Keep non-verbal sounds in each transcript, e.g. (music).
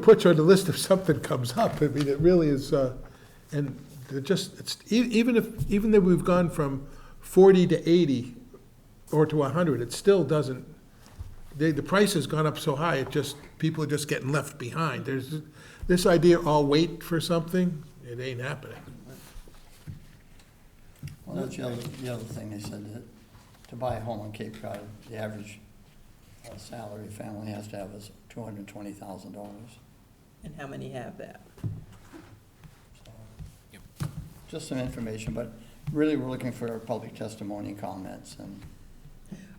put you on the list if something comes up. I mean, it really is, uh, and they're just, it's, e- even if, even though we've gone from forty to eighty or to hundred, it still doesn't, they, the price has gone up so high, it just, people are just getting left behind. There's, this idea, I'll wait for something, it ain't happening. Well, that's the other, the other thing they said, that to buy a home on Cape Cod, the average uh, salary family has to have is two hundred and twenty thousand dollars. And how many have that? Just some information, but really, we're looking for public testimony and comments, and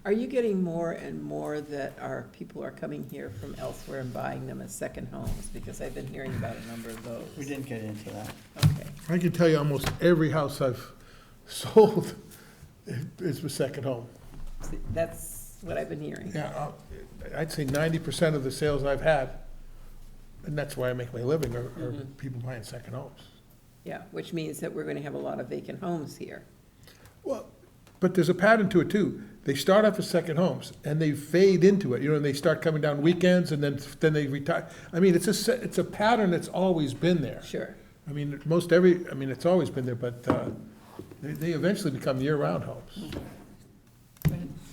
Are you getting more and more that our, people are coming here from elsewhere and buying them as second homes? Because I've been hearing about a number of those. we didn't get into that. Okay, I can tell you almost every house I've (laughs) sold is my second home. See, that's what I've been hearing. Yeah, I'll- I'd say ninety percent of the sales I've had, and that's why I make my living, are, are Mhm. people buying second homes. Yeah, which means that we're gonna have a lot of vacant homes here. Well, but there's a pattern to it too. They start off as second homes and they fade into it, you know, and they start coming down weekends and then, then they retire. I mean, it's a, se- it's a pattern that's always been there. Sure. I mean, most every, I mean, it's always been there, but, uh, they, they eventually become year-round homes.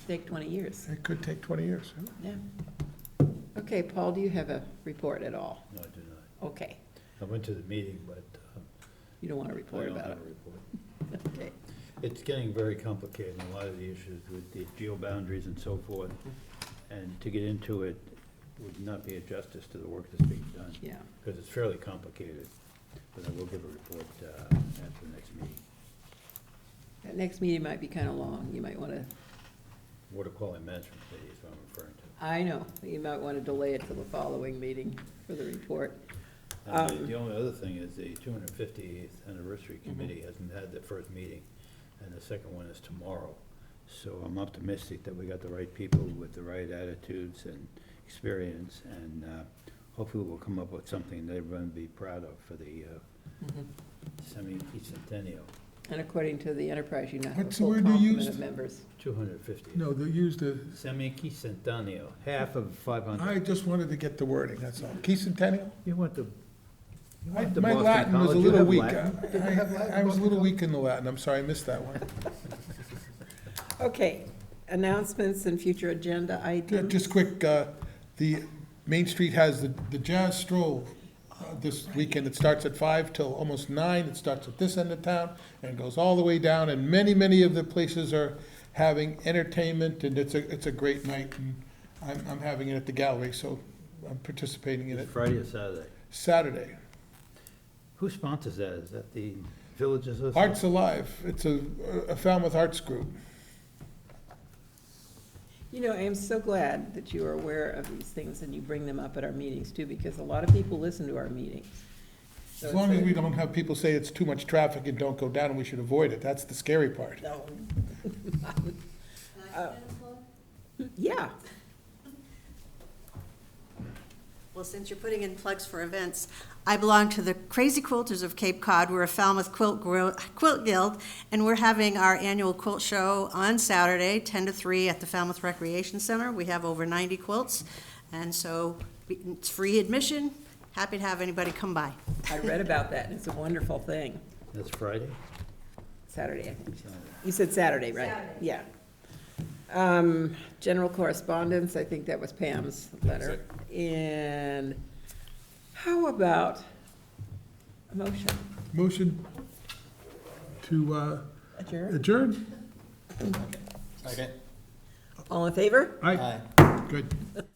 Take twenty years, It could take twenty years. yeah. Okay, Paul, do you have a report at all? No, I do not. Okay, I went to the meeting, but um, you don't wanna I report don't about have a it. report. Okay. It's getting very complicated, a lot of the issues with the geo boundaries and so forth. And to get into it would not be a justice to the work that's being done, Yeah, because it's fairly complicated. But I will give a report uh, at the next meeting. that next meeting might be kinda long, you might wanna Water quality management committee is what I'm referring to. I know, you might want to delay it till the following meeting for the report. And Um, The the only other thing is the two hundred fiftieth anniversary committee hasn't had their first meeting, and the second one is tomorrow. So I'm optimistic that we got the right people with the right attitudes and experience, and uh, hopefully we'll come up with something that everyone will be proud of for the uh, semi-centennial, And according to the enterprise, you now have a What's the full word you complement of used? members. two hundred fifty. No, they used the, Semi-centennial, half of five I hundred. just wanted to get the wording, that's all. Key Centennial? You want the, you I- want the My Boston Latin was College, a you little have weak. Latin. I I was a little weak in the Latin, I'm sorry, I missed that (laughs) one. Okay, announcements and future agenda Yeah, items. Just quick, uh, the Main Street has the the Jazz Stroll uh, this weekend. It starts at five till almost nine. It starts at this end of town and goes all the way down. And many, many of the places are having entertainment and it's a, it's a great night. And I'm, I'm having it at the gallery, so I'm participating in it It's Friday or Saturday? Saturday. Who sponsors that? Is that the Village Association? Arts Alive, it's a a Falmouth Arts Group. You know, I am so glad that you are aware of these things and you bring them up at our meetings too, because a lot of people listen to our meetings. So As it's long as a- we don't have people say it's too much traffic and don't go down and we should avoid it. That's the scary part. No. Can I Uh, get a plug? (laughs) Yeah, Well, since you're putting in plugs for events, I belong to the Crazy Quilters of Cape Cod. We're a Falmouth Quilt, Gro- Quilt Guild, and we're having our annual quilt show on Saturday, 10 to 3, at the Falmouth Recreation Center. We have over 90 quilts, and so we- it's free admission. Happy to have anybody come by. I read about that and it's a wonderful thing. That's Friday? Saturday, I think. Saturday. You said Saturday, right? Yeah. Um, General correspondence, I think that was Pam's letter. And how about a motion? Motion to uh, Adjourn? adjourn? Second. All in favor? Aye, Aye. Uh, good.